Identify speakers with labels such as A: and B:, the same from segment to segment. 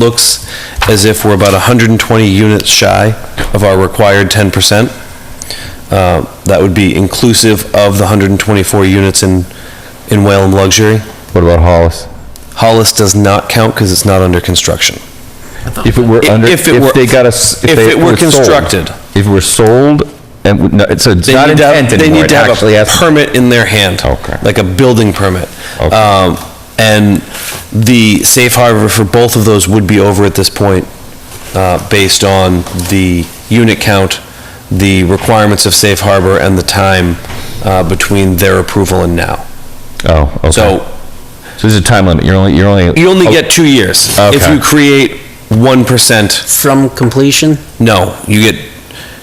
A: looks as if we're about 120 units shy of our required 10%. Uh, That would be inclusive of the 124 units in, in Whalen Luxury.
B: What about Hollis?
A: Hollis does not count because it's not under construction.
B: If it were under,
A: If it were-
B: if they got us, if
A: if
B: they
A: it were
B: were sold.
A: constructed.
B: If it were sold, and, w- no, it's- so it's
A: They
B: not
A: need to have-
B: intent
A: They
B: anymore,
A: need
B: it
A: to have
B: actually
A: a
B: has.
A: permit in their hand.
B: Okay.
A: Like a building permit.
B: Okay.
A: Um, And the safe harbor for both of those would be over at this point, uh, based on the unit count, the requirements of safe harbor, and the time uh, between their approval and now.
B: Oh, okay. So
A: So
B: there's a time limit, you're only, you're only.
A: you only oh, get two years. If
B: Okay.
A: you create 1%,
C: From completion?
A: No, you get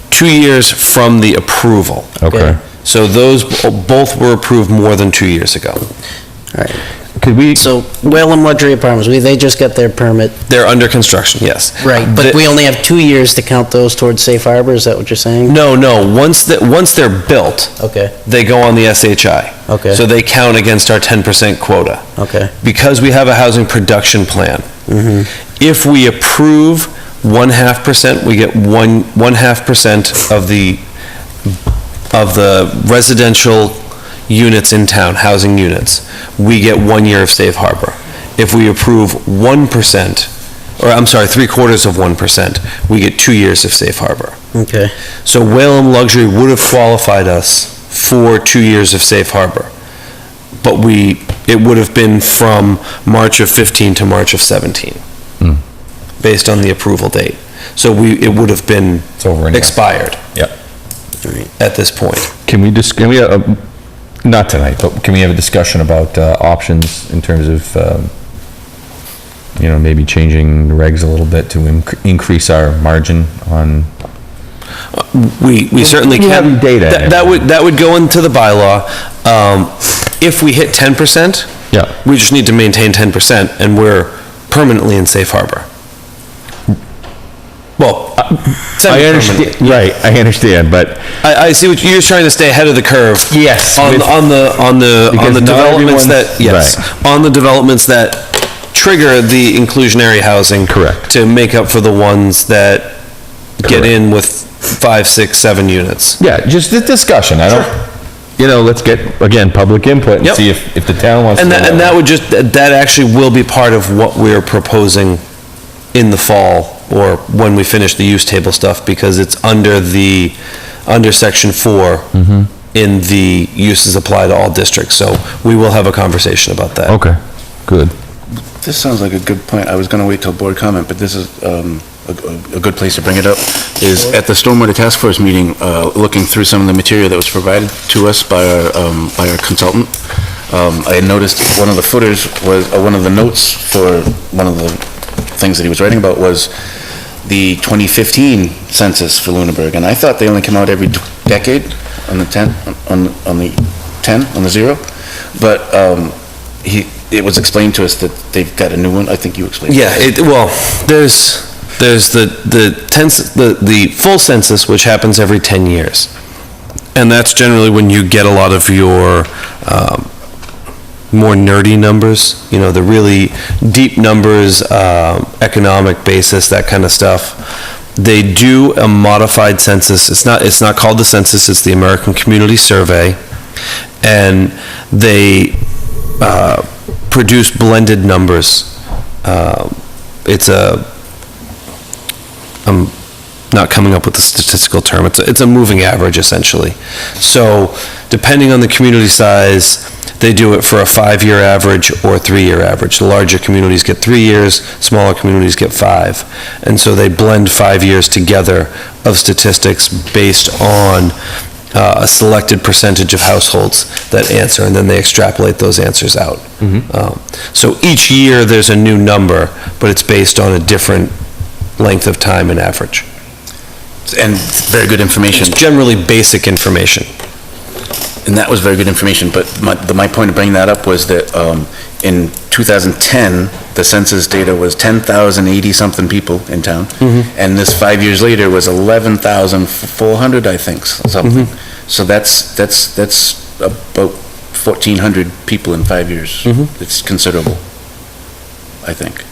A: two years from the approval.
B: Okay.
A: So those, b- both were approved more than two years ago.
C: All right.
B: Could we,
C: So Whalen Luxury Apartments, we, they just got their permit,
A: They're under construction, yes.
C: right,
A: The-
C: but we only have two years to count those towards safe harbor, is that what you're saying?
A: No, no, once, that once they're built,
C: Okay,
A: they go on the SHI.
C: Okay.
A: So they count against our 10% quota.
C: okay, Mm-hmm,
A: Because we have a housing production plan, Mm-hmm. if we approve one half percent, we get one, one half percent of the, of the residential units in town, housing units. We get one year of safe harbor. If we approve one percent, or I'm sorry, three quarters of one percent, we get two years of safe harbor.
C: okay.
A: So Whalen Luxury would have qualified us for two years of safe harbor. But we, it would have been from March of 15 to March of 17,
B: Hmm.
A: based on the approval date. So we, it would have been
B: It's over anyway.
A: expired
C: All right.
A: at this point.
B: can we just, can we, uh, um, not tonight, but can we have a discussion about uh, options in terms of, um, you know, maybe changing the regs a little bit to inc- increase our margin on,
A: We, we certainly
B: you
A: can.
B: have data
A: That- That would, that would go into the bylaw. Um, If we hit 10%,
B: Yeah.
A: we just need to maintain 10% and we're permanently in safe harbor. Well, uh,
B: I
A: semi-permanently.
B: understand, right, I understand, but
A: I, I see what, you're trying to stay ahead of the curve.
B: Yes,
A: On,
B: with-
A: on the, on the, on
B: Because
A: the
B: not
A: developments
B: everyone's-
A: that, yes, on the developments that trigger the inclusionary housing.
B: Correct.
A: To make up for the ones that get
B: Correct.
A: in with five, six, seven units.
B: Yeah, just the discussion, I don't, you know, let's get, again, public input and
A: Yep.
B: see if, if the town wants to.
A: And
B: go
A: that, and that would just, that actually will be part of what we're proposing in the fall or when we finish the use table stuff because it's under the, under section four in the uses apply to all districts. So we will have a conversation about that.
B: Okay, good.
D: This sounds like a good point. I was going to wait till board comment, but this is um, a a good place to bring it up, is at the Stormwater Task Force meeting, uh, looking through some of the material that was provided to us by our, um, by our consultant, um, I had noticed one of the footers was, uh, one of the notes for one of the things that he was writing about was the 2015 census for Lunenburg, and I thought they only come out every tw- decade on the 10, on, on the 10, on the 0, but um, he, it was explained to us that they've got a new one, I think you explained. it.
A: Yeah, it, well, there's, there's the, the tense, the, the full census, which happens every 10 years. And that's generally when you get a lot of your, um, more nerdy numbers, you know, the really deep numbers, um, economic basis, that kind of stuff. They do a modified census. It's not, it's not called the census, it's the American Community Survey. And they, uh, produce blended numbers. Uh, It's a, I'm not coming up with the statistical term, it's, a- it's a moving average essentially. So depending on the community size, they do it for a five-year average or a three-year average. The larger communities get three years, smaller communities get five. And so they blend five years together of statistics based on uh, a selected percentage of households that answer, and then they extrapolate those answers out. Um, So each year, there's a new number, but it's based on a different length of time and average.
D: And very good information.
A: It's generally basic information.
D: And that was very good information, but my, the- my point of bringing that up was that, um, in 2010, the census data was 10,080-something people in town. And this, five years later, was 11,400, I think, s- something. So that's, that's, that's about 1,400 people in five years. It's considerable, I think.